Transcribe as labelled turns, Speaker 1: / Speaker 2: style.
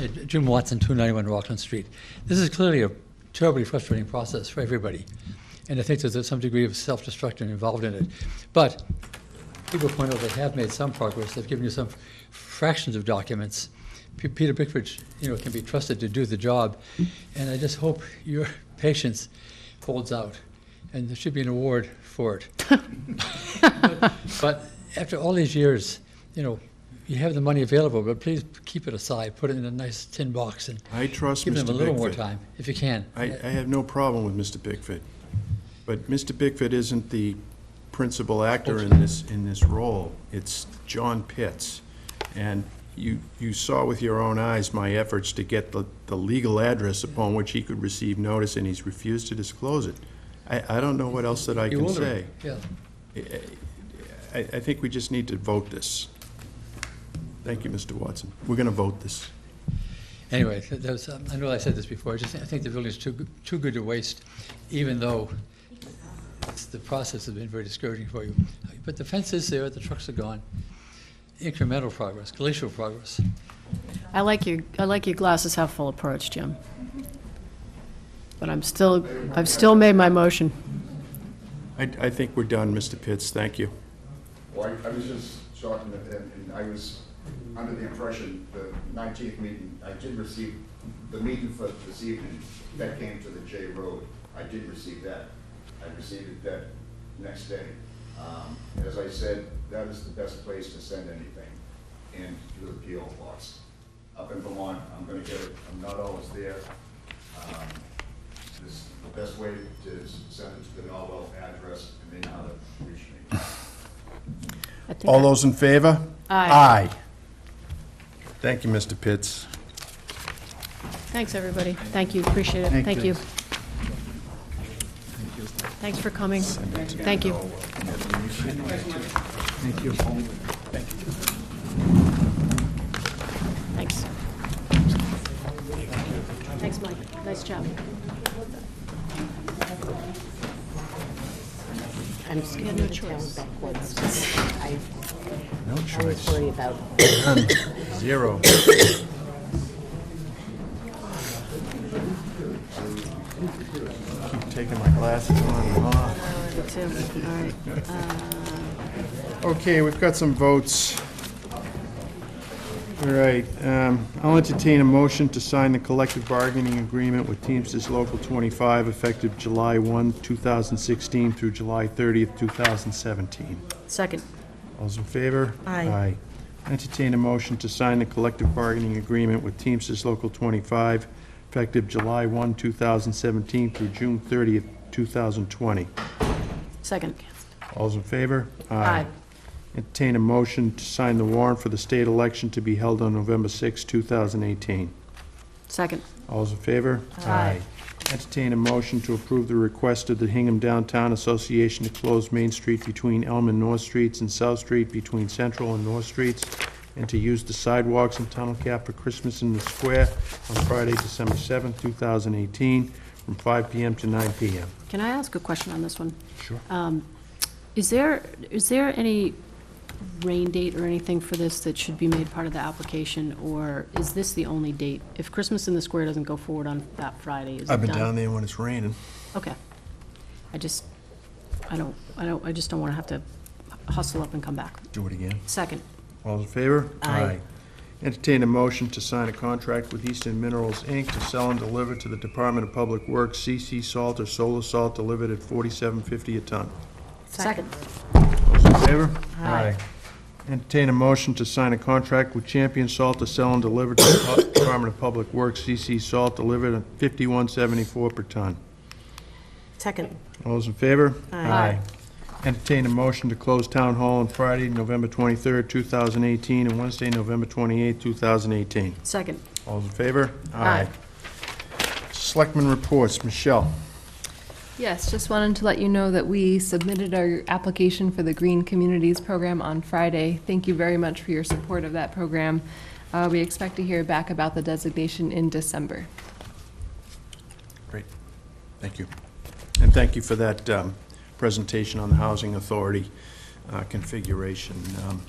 Speaker 1: Uh, Jim Watson, 291 Rockland Street. This is clearly a terribly frustrating process for everybody, and I think there's some degree of self-destruction involved in it. But people point out they have made some progress, they've given you some fractions of documents. P- Peter Bickford, you know, can be trusted to do the job, and I just hope your patience holds out, and there should be an award for it. But after all these years, you know, you have the money available, but please keep it aside, put it in a nice tin box and
Speaker 2: I trust
Speaker 1: give
Speaker 2: Mr.
Speaker 1: them a little more
Speaker 2: Bickford.
Speaker 1: time, if you can.
Speaker 2: I, I have no problem with Mr. Bickford. But Mr. Bickford isn't the principal actor in this, in this role. It's John Pitts. And you, you saw with your own eyes my efforts to get the, the legal address upon which he could receive notice, and he's refused to disclose it. I, I don't know what else that I
Speaker 1: You're
Speaker 2: can
Speaker 1: older,
Speaker 2: say.
Speaker 1: Yeah,
Speaker 2: I, I think we just need to vote this. Thank you, Mr. Watson. We're gonna vote this.
Speaker 1: anyway, th- that was, um, I know I said this before, I just, I think the building is too, good- too good to waste, even though it's- the process has been very discouraging for you. But the fence is there, the trucks are gone, incremental progress, glacial progress.
Speaker 3: I like your, I like your glasses half full approach, Jim. But I'm still, I've still made my motion.
Speaker 2: I, I think we're done, Mr. Pitts. Thank you.
Speaker 4: Well, I I was just talking to them, and I was under the impression, the nineteenth meeting, I did receive, the meeting for this evening, that came to the J Road, I did receive that. I received it that next day. Um, As I said, that is the best place to send anything, and to the P O box. Up in Vermont, I'm gonna get it, I'm not always there. Um, This, the best way to s- send it to the Norwell address, and they know how to reach me.
Speaker 3: I think
Speaker 2: All those in favor?
Speaker 3: Aye.
Speaker 2: Aye. Thank you, Mr. Pitts.
Speaker 3: Thanks, everybody. Thank you, appreciate it. Thank you. Thanks for coming. Thank you. Thanks. Thanks, Mike. Nice job.
Speaker 5: I'm scared of the town backwards. I always worry about
Speaker 2: Zero. Keep taking my glasses on and off.
Speaker 3: Tim, all right. Uh,
Speaker 2: Okay, we've got some votes. All right, um, I'll entertain a motion to sign the collective bargaining agreement with Teamsters Local 25 effective July 1, 2016 through July 30th, 2017.
Speaker 3: Second.
Speaker 2: All's in favor?
Speaker 5: Aye.
Speaker 2: Aye. Entertain a motion to sign the collective bargaining agreement with Teamsters Local 25, effective July 1, 2017 through June 30th, 2020.
Speaker 3: Second.
Speaker 2: All's in favor?
Speaker 3: Aye.
Speaker 2: Entertain a motion to sign the warrant for the state election to be held on November 6, 2018.
Speaker 3: Second.
Speaker 2: All's in favor?
Speaker 3: Aye.
Speaker 2: Entertain a motion to approve the request of the Hingham Downtown Association to close Main Street between Elm and North Streets and South Street between Central and North Streets, and to use the sidewalks and tunnel cap for Christmas in the Square on Friday, December seventh, two thousand eighteen, from five PM to nine PM.
Speaker 3: Can I ask a question on this one? Um,
Speaker 2: Sure.
Speaker 3: Is there, is there any rain date or anything for this that should be made part of the application, or is this the only date? If Christmas in the Square doesn't go forward on that Friday, is it done?
Speaker 2: there when it's raining.
Speaker 3: Okay. I just, I don't, I don't, I just don't want to have to hustle up and come back.
Speaker 2: Do it again.
Speaker 3: Second.
Speaker 2: All in favor?
Speaker 5: Aye.
Speaker 2: Entertain a motion to sign a contract with Eastern Minerals, Inc. to sell and deliver to the Department of Public Works CC salt or solar salt delivered at forty-seven fifty a ton.
Speaker 3: Second.
Speaker 2: Those in favor?
Speaker 5: Aye.
Speaker 2: Entertain a motion to sign a contract with Champion Salt to sell and deliver to the Pu- Department of Public Works CC salt delivered at fifty-one seventy-four per ton.
Speaker 5: second.
Speaker 2: All those in favor?
Speaker 5: Aye.
Speaker 2: Entertain a motion to close Town Hall on Friday, November twenty-third, two thousand eighteen, and Wednesday, November twenty-eighth, two thousand eighteen.
Speaker 3: Second.
Speaker 2: All's in favor?
Speaker 3: Aye.
Speaker 2: Selectmen reports, Michelle.
Speaker 6: Yes, just wanted to let you know that we submitted our application for the Green Communities Program on Friday. Thank you very much for your support of that program. Uh, We expect to hear back about the designation in December.
Speaker 2: Great, thank you. And thank you for that um, presentation on the Housing Authority uh, configuration. Um,